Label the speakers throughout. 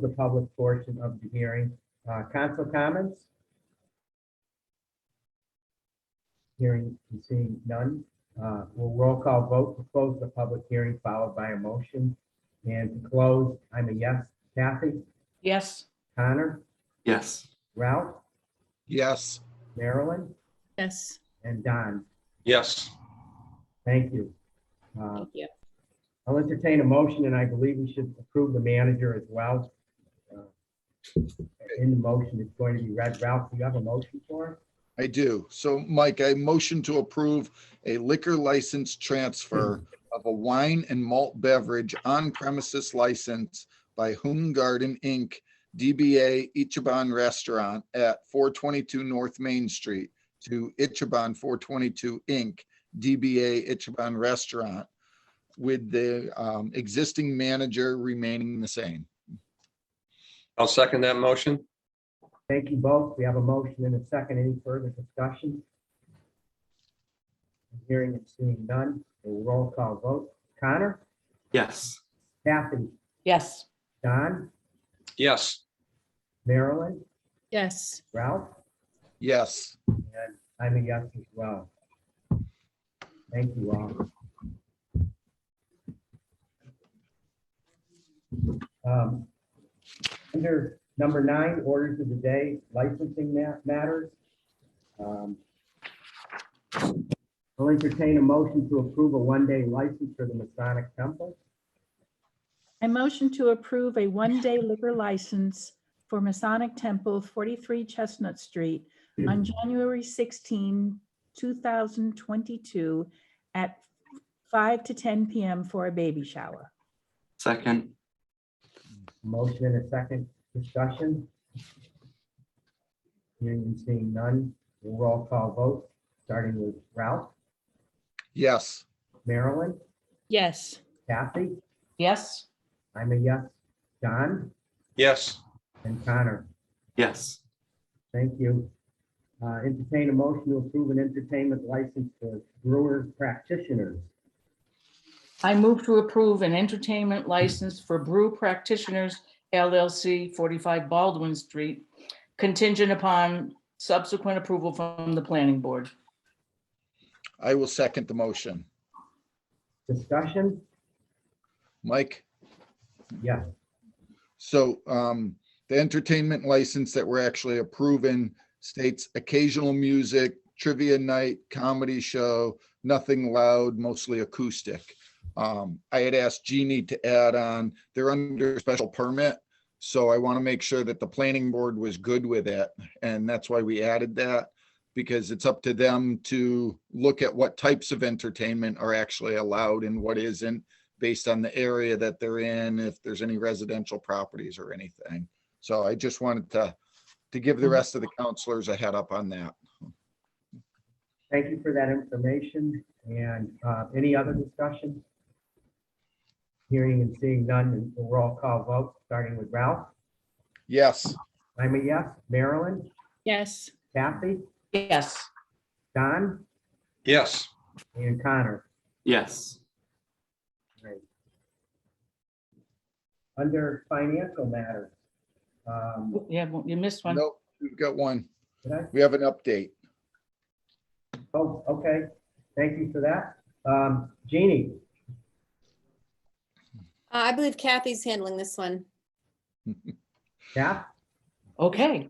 Speaker 1: the public portion of the hearing. Uh, Council comments? Hearing and seeing none. Uh, We'll roll call vote to close the public hearing followed by a motion. And to close, I'm a yes. Kathy,
Speaker 2: Yes.
Speaker 1: Connor,
Speaker 3: Yes.
Speaker 1: Ralph,
Speaker 4: Yes.
Speaker 1: Marilyn,
Speaker 2: Yes.
Speaker 1: and Don.
Speaker 4: Yes.
Speaker 1: Thank you. Uh,
Speaker 2: Thank you.
Speaker 1: I'll entertain a motion, and I believe we should approve the manager as well. Uh, In the motion, it's going to be read. Ralph, do you have a motion for
Speaker 4: I do. So Mike, I motion to approve a liquor license transfer of a wine and malt beverage on premises license by Hoon Garden Inc., DBA Ichiban Restaurant at 422 North Main Street to Ichiban 422 Inc., DBA Ichiban Restaurant with the um, existing manager remaining the same.
Speaker 5: I'll second that motion.
Speaker 1: it? Thank you both. We have a motion and a second. Any further discussion? Hearing and seeing none, we'll roll call vote. Connor,
Speaker 3: Yes.
Speaker 1: Kathy,
Speaker 2: Yes.
Speaker 1: Don,
Speaker 5: Yes,
Speaker 1: Marilyn,
Speaker 2: Yes.
Speaker 1: Ralph?
Speaker 4: Yes.
Speaker 1: And I'm a yes as well. Thank you all. Um, Under number nine, orders of the day, licensing ma- matters. Um, I'll entertain a motion to approve a one-day license for the Masonic Temple.
Speaker 6: I motion to approve a one-day liquor license for Masonic Temple, 43 Chestnut Street, on January 16, 2022, at 5 to 10 p.m. for a baby shower.
Speaker 3: Second.
Speaker 1: Motion and a second discussion. Hearing and seeing none, we'll roll call vote, starting with Ralph,
Speaker 4: Yes.
Speaker 1: Marilyn,
Speaker 6: Yes.
Speaker 1: Kathy,
Speaker 2: Yes.
Speaker 1: I'm a yes. Don
Speaker 5: yes,
Speaker 1: and Connor,
Speaker 3: Yes.
Speaker 1: thank you. Uh, Entertain a motion to approve an entertainment license for brewer practitioners.
Speaker 2: I move to approve an entertainment license for Brew Practitioners LLC, 45 Baldwin Street, contingent upon subsequent approval from the planning board.
Speaker 4: I will second the motion.
Speaker 1: Discussion?
Speaker 4: Mike?
Speaker 1: Yes.
Speaker 4: So um, the entertainment license that we're actually approving states occasional music, trivia night, comedy show, nothing loud, mostly acoustic. Um, I had asked Jeannie to add on, they're under special permit. So I want to make sure that the planning board was good with it. And that's why we added that because it's up to them to look at what types of entertainment are actually allowed and what isn't based on the area that they're in, if there's any residential properties or anything. So I just wanted to, to give the rest of the counselors a head up on that.
Speaker 1: Thank you for that information. And uh, any other discussion? Hearing and seeing none, and we'll roll call vote, starting with Ralph.
Speaker 4: Yes,
Speaker 1: I'm a yes. Marilyn,
Speaker 6: Yes.
Speaker 1: Kathy,
Speaker 2: Yes.
Speaker 1: Don
Speaker 5: yes,
Speaker 1: and Connor.
Speaker 3: Yes.
Speaker 1: Under financial matters. um,
Speaker 2: Yeah, well, you missed one.
Speaker 4: nope, we've got one.
Speaker 1: did I-
Speaker 4: We have an update.
Speaker 1: Oh, okay. Thank you for that. Um, Jeannie?
Speaker 7: Uh, I believe Kathy's handling this one.
Speaker 1: Kath?
Speaker 2: Okay.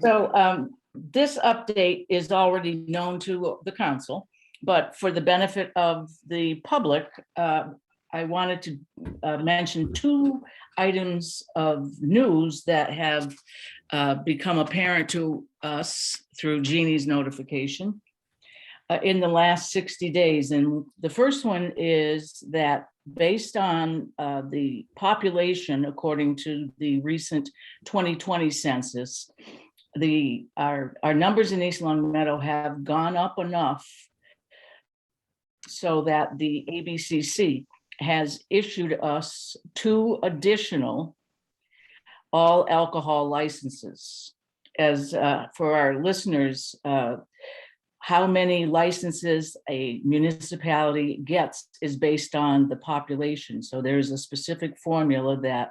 Speaker 2: So um, this update is already known to the council, but for the benefit of the public, uh, I wanted to uh, mention two items of news that have uh, become apparent to us through Jeannie's notification uh, in the last 60 days. And the first one is that based on uh, the population, according to the recent 2020 census, the, our, our numbers in East Long Meadow have gone up enough so that the ABCC has issued us two additional all alcohol licenses. As uh, for our listeners, uh, how many licenses a municipality gets is based on the population. So there's a specific formula that